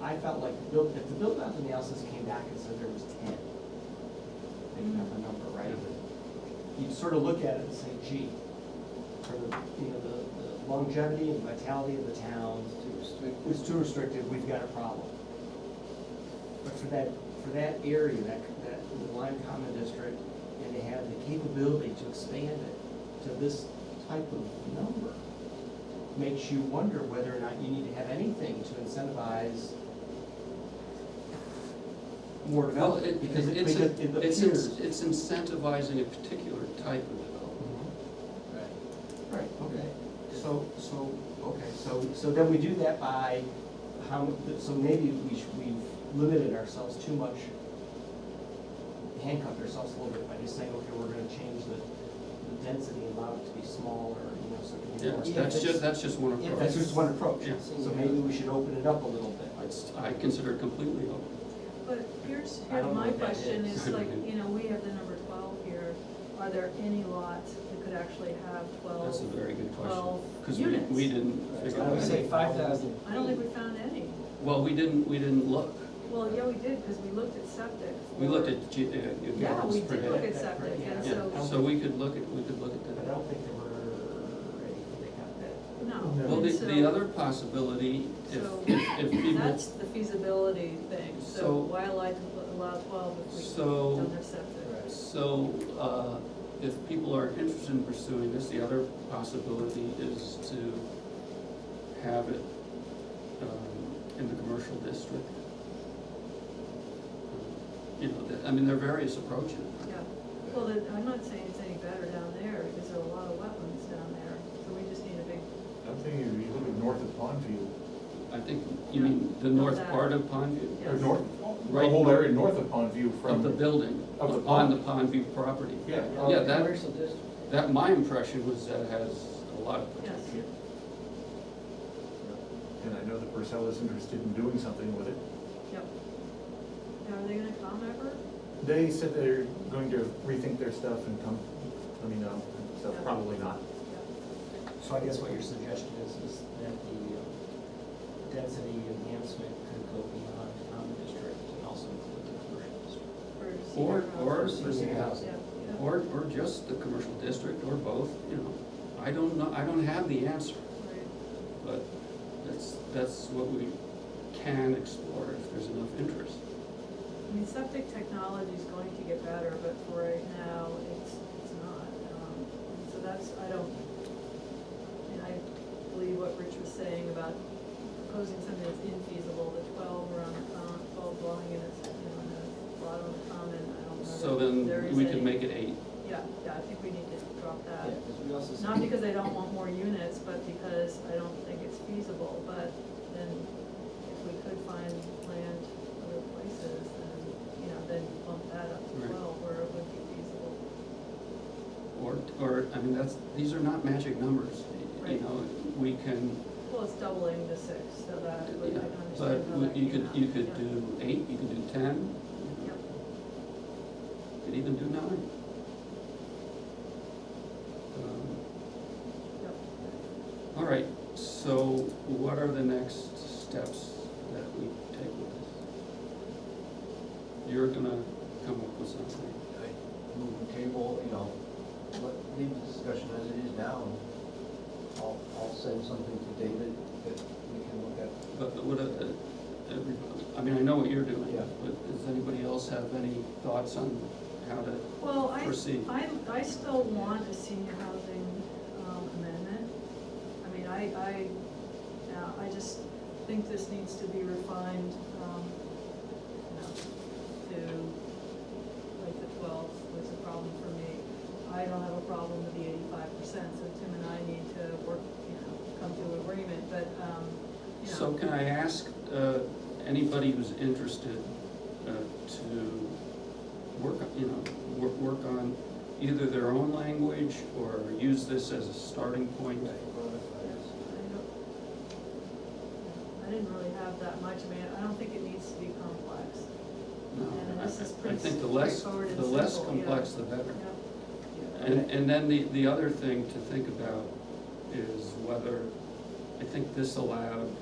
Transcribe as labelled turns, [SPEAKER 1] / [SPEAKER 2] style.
[SPEAKER 1] I felt like, the build- if the build out analysis came back and said there was ten, making up a number, right? You'd sort of look at it and say, gee, for the, you know, the the longevity and vitality of the town, it's too restrictive, we've got a problem. But for that, for that area, that, that the Lime Common District, and to have the capability to expand it to this type of number, makes you wonder whether or not you need to have anything to incentivize more
[SPEAKER 2] Well,
[SPEAKER 1] development,
[SPEAKER 2] it,
[SPEAKER 1] because it,
[SPEAKER 2] it's,
[SPEAKER 1] because
[SPEAKER 2] a-
[SPEAKER 1] it
[SPEAKER 2] it's,
[SPEAKER 1] appears.
[SPEAKER 2] in- it's incentivizing a particular type of development.
[SPEAKER 1] Mhm.
[SPEAKER 3] Right.
[SPEAKER 1] Right, okay, so, so, okay, so, so then we do that by how, mu- so maybe we should, we've limited ourselves too much, handcuffed ourselves a little bit by just saying, okay, we're gonna change the, the density, allow it to be smaller, you know, so it can be
[SPEAKER 2] Yeah,
[SPEAKER 1] more.
[SPEAKER 2] that's
[SPEAKER 1] dense.
[SPEAKER 2] just, that's just one
[SPEAKER 3] if
[SPEAKER 1] That's
[SPEAKER 2] approach.
[SPEAKER 1] just one approach,
[SPEAKER 2] Yeah.
[SPEAKER 1] so maybe we should open it up a little bit.
[SPEAKER 2] It's, I consider it completely open.
[SPEAKER 4] But here's,
[SPEAKER 1] I don't
[SPEAKER 4] here's
[SPEAKER 1] know
[SPEAKER 4] my
[SPEAKER 1] what that
[SPEAKER 4] question,
[SPEAKER 1] is.
[SPEAKER 4] is like, you know, we have the number twelve here, are there any lots that could actually have
[SPEAKER 2] That's a
[SPEAKER 4] twelve?
[SPEAKER 2] very good question.
[SPEAKER 4] Well,
[SPEAKER 2] Because we,
[SPEAKER 4] units.
[SPEAKER 2] we didn't figure
[SPEAKER 3] I would
[SPEAKER 2] out.
[SPEAKER 3] say five thousand.
[SPEAKER 4] I don't think we found any.
[SPEAKER 2] Well, we didn't, we didn't look.
[SPEAKER 4] Well, yeah, we did, because we looked at septic.
[SPEAKER 2] We
[SPEAKER 4] for-
[SPEAKER 2] looked at, ge- uh,
[SPEAKER 4] Yeah,
[SPEAKER 2] Gordon's
[SPEAKER 4] we
[SPEAKER 2] per
[SPEAKER 4] did look
[SPEAKER 2] head.
[SPEAKER 4] at septic, and
[SPEAKER 1] Yeah.
[SPEAKER 2] Yeah,
[SPEAKER 4] so,
[SPEAKER 2] so we could look at, we could look at
[SPEAKER 1] But I
[SPEAKER 2] that.
[SPEAKER 1] don't think there were any that got that.
[SPEAKER 4] no.
[SPEAKER 2] Well, the,
[SPEAKER 4] And
[SPEAKER 2] the
[SPEAKER 4] so-
[SPEAKER 2] other possibility, if,
[SPEAKER 4] So-
[SPEAKER 2] if people,
[SPEAKER 4] That's the feasibility thing,
[SPEAKER 2] So-
[SPEAKER 4] so why allow, allow twelve if we
[SPEAKER 2] So-
[SPEAKER 4] don't have septic?
[SPEAKER 2] so, uh, if people are interested in pursuing this, the other possibility is to have it, um, in the commercial district. You know, that- I mean, there are various approaches.
[SPEAKER 4] Yeah, well, then, I'm not saying it's any better down there, because there are a lot of wetlands down there, so we just need a big,
[SPEAKER 5] I'm thinking you live north of Pondview,
[SPEAKER 2] I think, you mean, the north
[SPEAKER 4] Not
[SPEAKER 2] part of Pondview,
[SPEAKER 5] or
[SPEAKER 4] Yes.
[SPEAKER 5] north,
[SPEAKER 2] Right.
[SPEAKER 5] the whole area north of Pondview from.
[SPEAKER 2] of the building,
[SPEAKER 5] Of the
[SPEAKER 2] on the
[SPEAKER 5] pond.
[SPEAKER 2] Pondview property.
[SPEAKER 5] Yeah.
[SPEAKER 2] Yeah, that,
[SPEAKER 3] Commercial district.
[SPEAKER 2] that, my impression was that it has a lot of
[SPEAKER 4] yes.
[SPEAKER 2] potential.
[SPEAKER 5] And I know that Purcell's interested in doing something with it.
[SPEAKER 4] Yep. Now, are they gonna come ever?
[SPEAKER 5] They said they're going to rethink their stuff and come, let me know, so
[SPEAKER 4] Yeah.
[SPEAKER 5] probably not.
[SPEAKER 1] So I guess what your suggestion is, is that the um, density enhancement could go beyond the common district and also include the commercial district.
[SPEAKER 4] For
[SPEAKER 2] Or,
[SPEAKER 4] senior
[SPEAKER 2] or,
[SPEAKER 4] housing?
[SPEAKER 1] For senior housing.
[SPEAKER 4] Yeah, yeah.
[SPEAKER 2] or, or just the commercial district, or both, you know. I don't know, I don't have the answer,
[SPEAKER 4] Right.
[SPEAKER 2] but that's, that's what we can explore if there's enough interest.
[SPEAKER 4] I mean, septic technology is going to get better, but for right now, it's, it's not. Um, So that's, I don't, and I believe what Rich was saying about proposing something that's infeasible, the twelve around the common, twelve dwelling units, you know, and a lot on the common, I don't know.
[SPEAKER 2] So
[SPEAKER 4] that there
[SPEAKER 2] then
[SPEAKER 4] is
[SPEAKER 2] we can
[SPEAKER 4] any-
[SPEAKER 2] make it eight.
[SPEAKER 4] Yeah, yeah, I think we need to drop that.
[SPEAKER 3] Yeah, because we also.
[SPEAKER 4] Uh, Not because I don't want more units, but because I don't think it's feasible, but then if we could find land other places, then, you know, then bump that up
[SPEAKER 2] Right.
[SPEAKER 4] to twelve where it would be feasible.
[SPEAKER 2] Or, or, I mean, that's, these are not magic numbers, you
[SPEAKER 4] Right.
[SPEAKER 2] know, we can,
[SPEAKER 4] Well, it's doubling the six, so that I
[SPEAKER 2] yeah,
[SPEAKER 4] would, I can
[SPEAKER 2] but
[SPEAKER 4] understand how that
[SPEAKER 2] you
[SPEAKER 4] came
[SPEAKER 2] could,
[SPEAKER 4] out.
[SPEAKER 2] you could
[SPEAKER 4] Yeah.
[SPEAKER 2] do eight, you could do ten,
[SPEAKER 4] Yep.
[SPEAKER 2] you could even do nine. Um,
[SPEAKER 4] Yep.
[SPEAKER 2] All right, so what are the next steps that we take with this? You're gonna come up with something.
[SPEAKER 3] I Move the table, you know, let, leave the discussion as it is now. I'll, I'll send something to David that we can look at.
[SPEAKER 2] But but what, uh, everybody, I mean, I know what you're doing,
[SPEAKER 3] Yeah.
[SPEAKER 2] but does anybody else have any thoughts on how to,
[SPEAKER 4] Well, I,
[SPEAKER 2] Proceed.
[SPEAKER 4] I, I still want a senior housing um, amendment. I mean, I, I, yeah, I just think this needs to be refined, um, you know, to, like the twelve was a problem for me. I don't have a problem with the eighty-five percent, so Tim and I need to work, you know, come to agreement, but, um, you
[SPEAKER 2] so
[SPEAKER 4] know,
[SPEAKER 2] can I ask, uh, anybody who's interested, uh, to work, on- you know, work, work on either their own language or use this as a starting point?
[SPEAKER 4] I don't- I didn't really have that much, I mean, I don't think it needs to be complex.
[SPEAKER 2] No,
[SPEAKER 4] And
[SPEAKER 2] I-
[SPEAKER 4] this is
[SPEAKER 2] I
[SPEAKER 4] pretty
[SPEAKER 2] think the less,
[SPEAKER 4] straightforward and
[SPEAKER 2] the less
[SPEAKER 4] simple, yeah.
[SPEAKER 2] complex, the better.
[SPEAKER 4] Yep.
[SPEAKER 2] And, and then the, the other thing to think about is whether, I think this allowed